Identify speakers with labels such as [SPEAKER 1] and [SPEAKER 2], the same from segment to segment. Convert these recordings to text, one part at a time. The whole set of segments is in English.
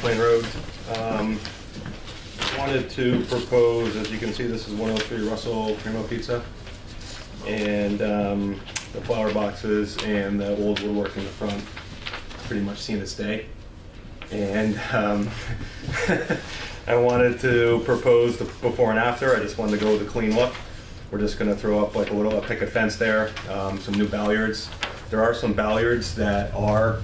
[SPEAKER 1] Plain Road. Um, Wanted to propose, as you can see, this is 103 Russell Primo Pizza. And um, the flower boxes and the old woodwork in the front, pretty much seen its day. And um, I wanted to propose the before and after. I just wanted to go with a clean look. We're just gonna throw up like a little a picket fence there, um, some new balliards. There are some balliards that are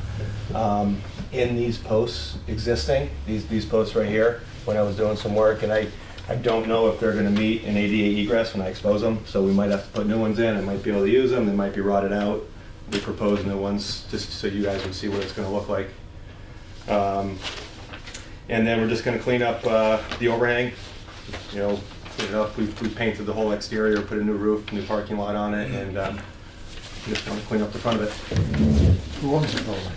[SPEAKER 1] um, in these posts existing, these, these posts right here, when I was doing some work. And I, I don't know if they're gonna meet an ADA egress when I expose them, so we might have to put new ones in. I might be able to use them, they might be rotted out. We propose new ones, just so you guys would see what it's gonna look like. Um, and then we're just gonna clean up uh, the overhang, you know, clean it up. We we painted the whole exterior, put a new roof, new parking lot on it, and um, just gonna clean up the front of
[SPEAKER 2] Who owns the building?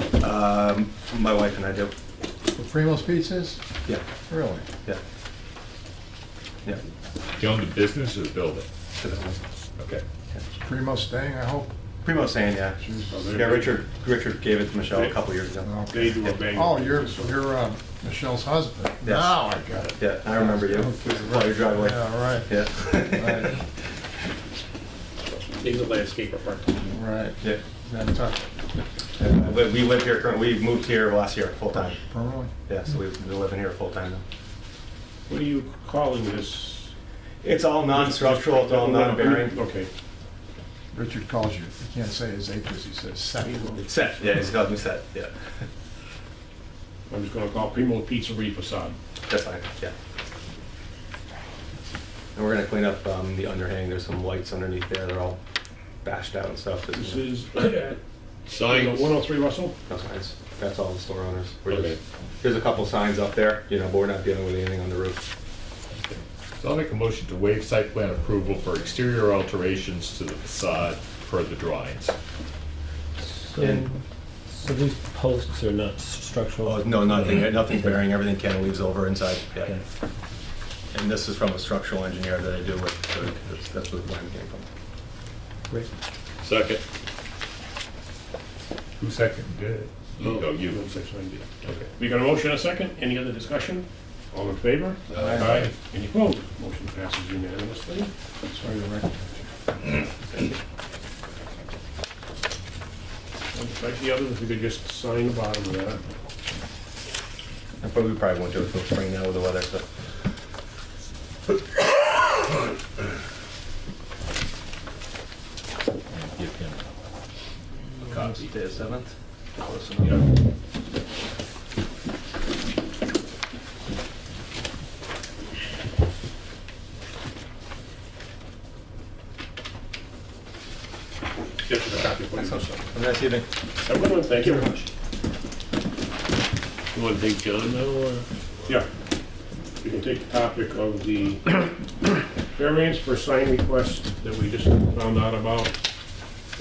[SPEAKER 1] it. Um, My wife and I do,
[SPEAKER 2] The Primo's Pizzas?
[SPEAKER 1] yeah,
[SPEAKER 2] Really?
[SPEAKER 1] yeah. Yeah.
[SPEAKER 3] Do you own the business or the building?
[SPEAKER 1] So that was-
[SPEAKER 3] Okay.
[SPEAKER 2] Is Primo staying, I hope?
[SPEAKER 1] Primo saying, yeah. Yeah, Richard, Richard gave it to Michelle a couple years ago.
[SPEAKER 2] Okay.
[SPEAKER 3] They do a bang.
[SPEAKER 2] Oh, you're, you're uh, Michelle's husband?
[SPEAKER 1] Yes.
[SPEAKER 2] Now I got it.
[SPEAKER 1] Yeah, I remember you, Well, your driveway,
[SPEAKER 2] Yeah, right,
[SPEAKER 1] yeah.
[SPEAKER 2] Right.
[SPEAKER 4] He's a landscaper firm.
[SPEAKER 2] right.
[SPEAKER 1] Yeah,
[SPEAKER 2] Nantucket,
[SPEAKER 1] Yeah, but we live here currently, we moved here last year, full-time.
[SPEAKER 2] Permanently?
[SPEAKER 1] Yeah, so we've been living here full time now.
[SPEAKER 4] What are you calling this?
[SPEAKER 1] It's all non-structural, it's all non-bearing.
[SPEAKER 4] Okay.
[SPEAKER 2] Richard calls you, he can't say his eight, because he says seven.
[SPEAKER 1] Set, yeah, it's called new set, yeah.
[SPEAKER 4] I'm just gonna call Primo Pizzeria facade.
[SPEAKER 1] That's fine, yeah. And we're gonna clean up um, the underhang, there's some lights underneath there, they're all bashed out and stuff. just,
[SPEAKER 4] This
[SPEAKER 1] you know,
[SPEAKER 4] is at
[SPEAKER 3] Signs.
[SPEAKER 4] 103 Russell.
[SPEAKER 1] No signs, that's all the store owners. We're
[SPEAKER 3] Okay.
[SPEAKER 1] just- There's a couple signs up there, you know, but we're not dealing with anything on the roof.
[SPEAKER 3] So I'll make a motion to waive site plan approval for exterior alterations to the facade per the drawings.
[SPEAKER 5] So so these posts are not structural?
[SPEAKER 1] Oh, no, nothing, nothing's bearing, everything can leaves over inside, yeah.
[SPEAKER 5] Okay.
[SPEAKER 1] And this is from a structural engineer that I do with, so that's- that's where the plan came from.
[SPEAKER 5] Great.
[SPEAKER 3] Second. Who seconded it? You, oh, you.
[SPEAKER 4] 169D.
[SPEAKER 3] Okay.
[SPEAKER 4] We got a motion and a second. Any other discussion? All in favor?
[SPEAKER 3] Aye.
[SPEAKER 4] Any opposed? Motion passes unanimously.
[SPEAKER 2] Sorry, the record.
[SPEAKER 4] Like the others, if we could just sign the bottom of that.
[SPEAKER 1] I probably, we probably won't do it till spring now with the weather, so.
[SPEAKER 5] Give him
[SPEAKER 3] A copy.
[SPEAKER 1] Day of seventh? Close
[SPEAKER 3] Yeah.
[SPEAKER 1] enough.
[SPEAKER 4] Just for the copy, please.
[SPEAKER 1] Have a nice evening.
[SPEAKER 4] Everyone, thank you very much.
[SPEAKER 3] You want to take John now, or?
[SPEAKER 4] Yeah. We can take the topic of the variance for sign request that we just found out about.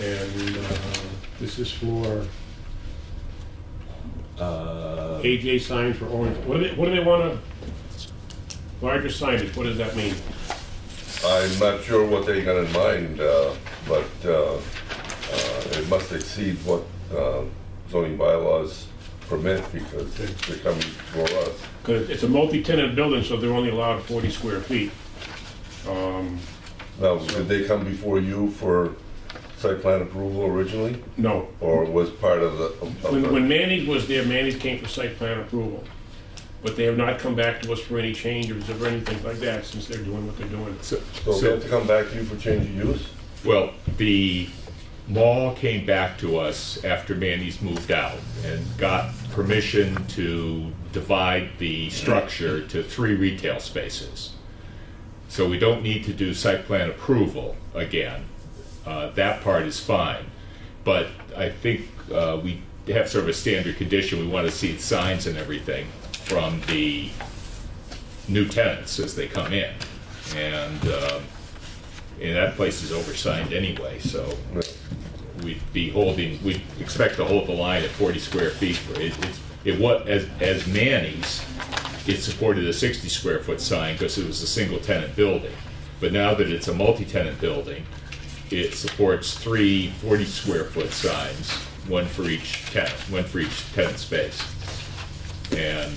[SPEAKER 4] And uh, this is for
[SPEAKER 3] Uh.
[SPEAKER 4] AJ signs for orange. What do they, what do they want to, larger signage, what does that mean?
[SPEAKER 6] I'm not sure what they got in mind, uh, but uh, uh, it must exceed what uh, zoning bylaws permit because they're coming for us.
[SPEAKER 4] Because it's a multi-tenant building, so they're only allowed 40 square feet. Um,
[SPEAKER 6] Now, did they come before you for site plan approval originally,
[SPEAKER 4] No,
[SPEAKER 6] or was part of the? of the-
[SPEAKER 4] When, when Manning was there, Manning came for site plan approval, but they have not come back to us for any changes or anything like that since they're doing what they're doing.
[SPEAKER 3] So,
[SPEAKER 6] So they have to come back to you for change of use?
[SPEAKER 3] Well, the mall came back to us after Manny's moved out and got permission to divide the structure to three retail spaces. So we don't need to do site plan approval again. Uh, That part is fine. But I think uh, we have sort of a standard condition, we want to see signs and everything from the new tenants as they come in. And um, and that place is oversigned anyway, so we'd be holding, we'd expect to hold the line at 40 square feet. for It, it's- it was, as, as Manny's, it supported a 60 square foot sign because it was a single tenant building. But now that it's a multi-tenant building, it supports three 40 square foot signs, one for each tenant, one for each tenant space. And